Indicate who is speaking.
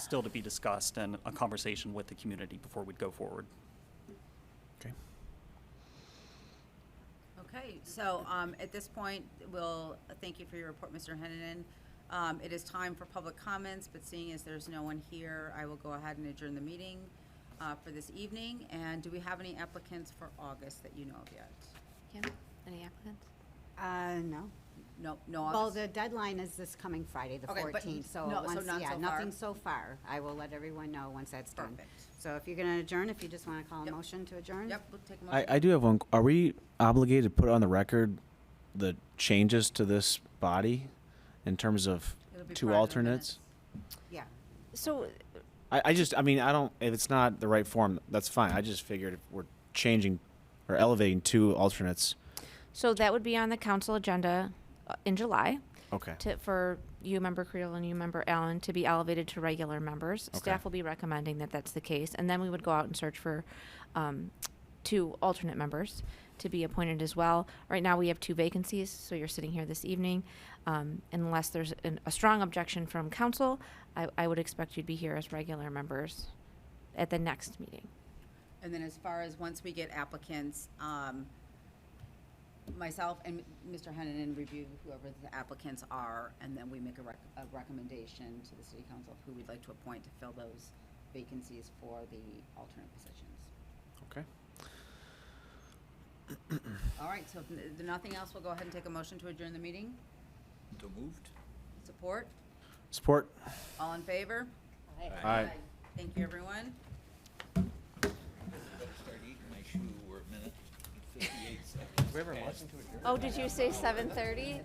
Speaker 1: still to be discussed and a conversation with the community before we'd go forward.
Speaker 2: Okay.
Speaker 3: Okay, so um, at this point, we'll, thank you for your report, Mr. Hennanen. Um, It is time for public comments, but seeing as there's no one here, I will go ahead and adjourn the meeting uh, for this evening. And do we have any applicants for August that you know of yet?
Speaker 4: Kim, any applicants?
Speaker 5: Uh, no.
Speaker 3: No, no
Speaker 5: Well,
Speaker 3: August?
Speaker 5: the deadline is this coming Friday, the
Speaker 3: Okay, but
Speaker 5: fourteenth, so
Speaker 3: no, so
Speaker 5: once,
Speaker 3: not
Speaker 5: yeah,
Speaker 3: so far.
Speaker 5: nothing so far. I will let everyone know once that's done.
Speaker 3: Perfect.
Speaker 5: So if you're gonna adjourn, if you just wanna call a
Speaker 3: Yep.
Speaker 5: motion to adjourn?
Speaker 3: Yep, we'll take a
Speaker 2: I,
Speaker 3: motion.
Speaker 2: I do have one. Are we obligated to put on the record the changes to this body in terms of
Speaker 3: It'll be
Speaker 2: two
Speaker 3: part of the
Speaker 2: alternates?
Speaker 3: minutes.
Speaker 5: Yeah.
Speaker 4: So,
Speaker 2: I, I just, I mean, I don't, if it's not the right form, that's fine. I just figured if we're changing or elevating two alternates.
Speaker 4: so that would be on the council agenda uh, in July
Speaker 2: Okay.
Speaker 4: to, for you, Member Creel, and you, Member Allen, to be elevated to regular members.
Speaker 2: Okay.
Speaker 4: Staff will be recommending that that's the case, and then we would go out and search for um, two alternate members to be appointed as well. Right now, we have two vacancies, so you're sitting here this evening. Um, Unless there's an- a strong objection from council, I, I would expect you'd be here as regular members at the next meeting.
Speaker 3: And then as far as, once we get applicants, um, myself and Mr. Hennanen review whoever the applicants are, and then we make a rec- a recommendation to the city council of who we'd like to appoint to fill those vacancies for the alternate positions.
Speaker 2: Okay.
Speaker 3: All right, so if n- if nothing else, we'll go ahead and take a motion to adjourn the meeting.
Speaker 6: So moved?
Speaker 3: Support?
Speaker 2: Support.
Speaker 3: All in favor?
Speaker 2: Aye.
Speaker 3: Thank you, everyone.
Speaker 6: Better start eating, my shoe were a minute and fifty-eight seconds.
Speaker 4: Oh, did you say seven thirty?